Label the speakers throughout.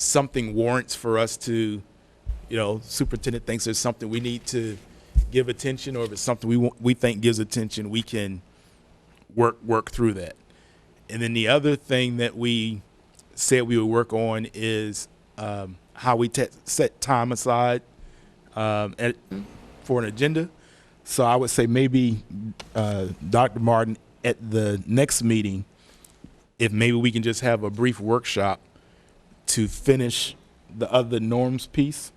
Speaker 1: something warrants for us to, you know, superintendent thinks there's something we need to give attention, or if it's something we, want- we think gives attention, we can work, work through that. And then the other thing that we said we would work on is um, how we te- set time aside um, at, for an agenda. So I would say maybe uh, Dr. Martin at the next meeting, if maybe we can just have a brief workshop to finish the other norms piece,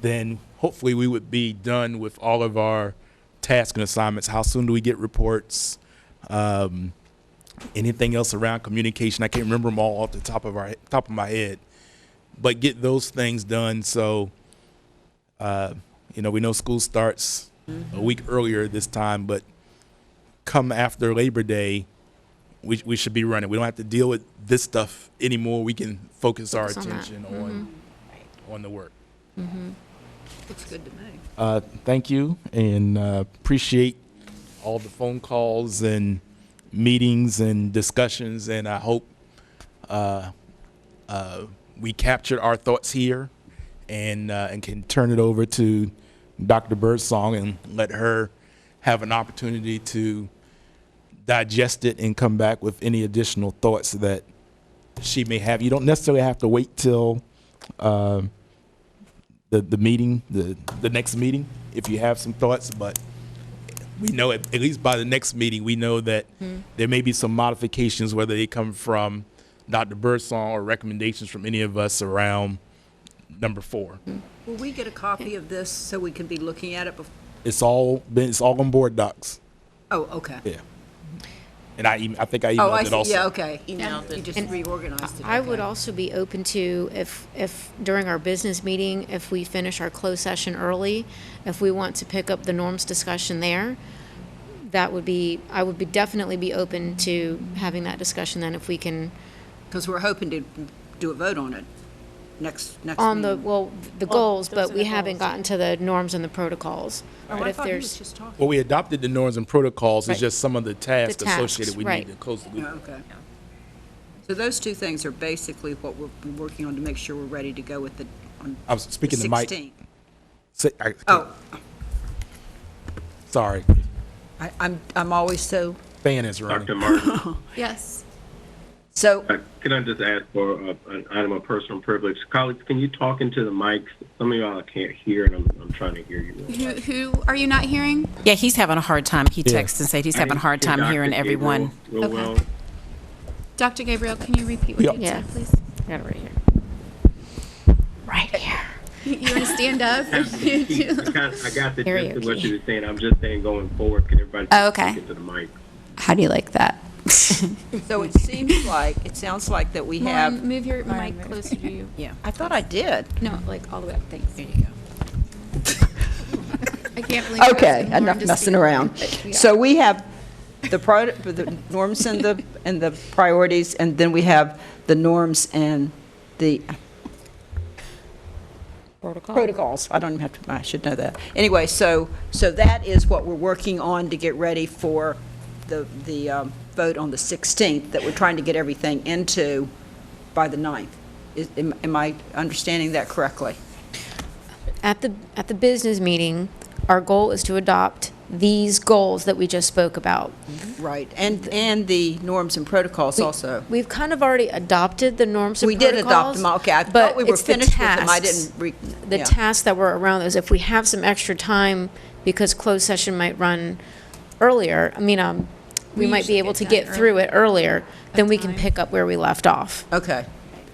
Speaker 1: then hopefully we would be done with all of our tasks and assignments. How soon do we get reports? Um, anything else around communication? I can't remember them all off the top of our top of my head, but get those things done so uh, you know, we know school starts a week earlier this time, but come after Labor Day, we, we should be running. We don't have to deal with this stuff anymore. We can focus our
Speaker 2: Focus on that. Mm-hmm.
Speaker 1: attention on, on the work.
Speaker 3: Looks good to me.
Speaker 1: Uh, thank you and uh, appreciate all the phone calls and meetings and discussions. And I hope uh, uh, we captured our thoughts here and, uh, and can turn it over to Dr. Birdsong and let her have an opportunity to digest it and come back with any additional thoughts that she may have. You don't necessarily have to wait till. Uh, the, the meeting, the, the next meeting, if you have some thoughts, but we know, at, at least by the next meeting, we know that
Speaker 3: Hmm.
Speaker 1: there may be some modifications, whether they come from Dr. Birdsong or recommendations from any of us around number four.
Speaker 3: Will we get a copy of this so we can be looking at it before?
Speaker 1: It's all been, it's all on board docs.
Speaker 3: Oh, okay.
Speaker 1: Yeah. And I, em- I think I
Speaker 3: Oh,
Speaker 1: emailed
Speaker 3: I
Speaker 1: it
Speaker 3: see,
Speaker 1: also.
Speaker 3: yeah, okay.
Speaker 4: Emailed
Speaker 3: You
Speaker 4: it.
Speaker 3: just reorganized it.
Speaker 2: I would
Speaker 3: okay.
Speaker 2: also be open to if, if during our business meeting, if we finish our closed session early, if we want to pick up the norms discussion there, that would be, I would be definitely be open to having that discussion then if we can,
Speaker 3: Because we're hoping to do a vote on it next, next
Speaker 2: on the,
Speaker 3: meeting.
Speaker 2: well, the goals,
Speaker 4: those
Speaker 2: but
Speaker 4: are
Speaker 2: we
Speaker 4: the
Speaker 2: haven't
Speaker 4: goals.
Speaker 2: gotten to the norms and the protocols.
Speaker 3: Oh,
Speaker 2: But
Speaker 3: I
Speaker 2: if
Speaker 3: thought he was
Speaker 2: there's,
Speaker 3: just talking.
Speaker 1: Well, we adopted the norms and protocols, it's
Speaker 2: Right.
Speaker 1: just some of the tasks
Speaker 2: The tasks,
Speaker 1: associated we need
Speaker 2: right.
Speaker 1: to close the
Speaker 3: Yeah,
Speaker 1: loop.
Speaker 3: Okay. So those two things are basically what we're working on to make sure we're ready to go with the, on
Speaker 1: I was
Speaker 3: the
Speaker 1: speaking to Mike.
Speaker 3: 16th.
Speaker 1: Say- I-
Speaker 3: Oh,
Speaker 1: Sorry,
Speaker 3: I, I'm, I'm always so,
Speaker 1: fan is running.
Speaker 5: Dr. Martin,
Speaker 4: Yes.
Speaker 3: so,
Speaker 5: uh, can I just ask for uh, an item of personal privilege? Colleagues, can you talk into the mics? Some of y'all can't hear, and I'm, I'm trying to hear you.
Speaker 4: Who, who are you not hearing?
Speaker 6: Yeah, he's having a hard time. He texted and said he's having a hard time hearing everyone.
Speaker 5: Real
Speaker 4: Okay.
Speaker 5: well.
Speaker 4: Dr. Gabriel, can you repeat what you
Speaker 2: Yeah.
Speaker 4: said, please?
Speaker 2: got it right here. Right here.
Speaker 4: You want to stand up?
Speaker 5: I got, I got the gist of what
Speaker 2: Karaoke.
Speaker 5: you were saying. I'm just saying going forward, can everybody
Speaker 4: Oh,
Speaker 5: just
Speaker 4: okay.
Speaker 5: talk into the mic?
Speaker 4: How do you like that?
Speaker 3: so it seems like, it sounds like that we
Speaker 4: Lauren,
Speaker 3: have,
Speaker 4: move your mic closer to you. Yeah.
Speaker 3: I thought I did.
Speaker 4: No, like all the way up. Thanks. There
Speaker 6: you
Speaker 4: go. I can't believe. I was
Speaker 3: Okay,
Speaker 4: asking Lauren
Speaker 3: enough
Speaker 4: to
Speaker 3: messing
Speaker 4: speak.
Speaker 3: around.
Speaker 4: But we
Speaker 3: So we have the pro- the norms and the, and the priorities, and then we have the norms and the. Protocols. I don't even have to, I should know that. Anyway, so, so that is what we're working on to get ready for the, the um, vote on the 16th, that we're trying to get everything into by the 9th. Is, am am I understanding that correctly?
Speaker 2: At the, at the business meeting, our goal is to adopt these goals that we just spoke about.
Speaker 3: Right, and, and the norms and protocols
Speaker 2: We-
Speaker 3: also.
Speaker 2: We've kind of already adopted the norms and
Speaker 3: We did adopt
Speaker 2: protocols,
Speaker 3: them, okay, I
Speaker 2: but
Speaker 3: thought we were
Speaker 2: it's the
Speaker 3: finished with them, I
Speaker 2: tasks-
Speaker 3: didn't re.
Speaker 2: The
Speaker 3: yeah.
Speaker 2: tasks that were around those, if we have some extra time, because closed session might run earlier, I mean, um, we
Speaker 4: We
Speaker 2: might be
Speaker 4: usually
Speaker 2: able to
Speaker 4: get
Speaker 2: get
Speaker 4: done
Speaker 2: through it earlier, then we can
Speaker 4: time.
Speaker 2: pick up where we left off.
Speaker 3: Okay,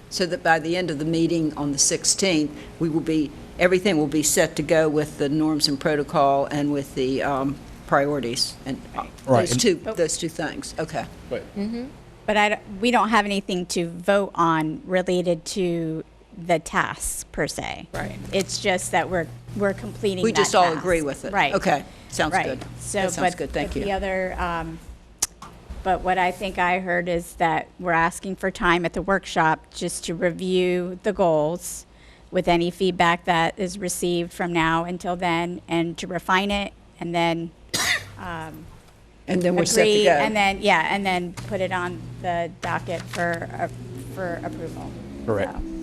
Speaker 3: so that by the end of the meeting on the 16th, we will be, everything will be set to go with the norms and protocol and with the um, priorities and uh,
Speaker 1: Right,
Speaker 3: those
Speaker 1: and-
Speaker 3: two, those two things, okay.
Speaker 7: But I, don't- we don't have anything to vote on related to the tasks per se. Right. It's just that we're, we're completing
Speaker 3: We
Speaker 7: that
Speaker 3: just all
Speaker 7: task.
Speaker 3: agree with it.
Speaker 7: Right.
Speaker 3: Okay, sounds
Speaker 7: Right.
Speaker 3: good.
Speaker 7: So,
Speaker 3: That sounds
Speaker 7: but-
Speaker 3: good, thank
Speaker 7: but the
Speaker 3: you.
Speaker 7: other, um, but what I think I heard is that we're asking for time at the workshop just to review the goals with any feedback that is received from now until then and to refine it and then
Speaker 3: And then we're set to
Speaker 7: agree,
Speaker 3: go.
Speaker 7: and then, yeah, and then put it on the docket for, uh, for approval.
Speaker 1: Correct.
Speaker 7: So,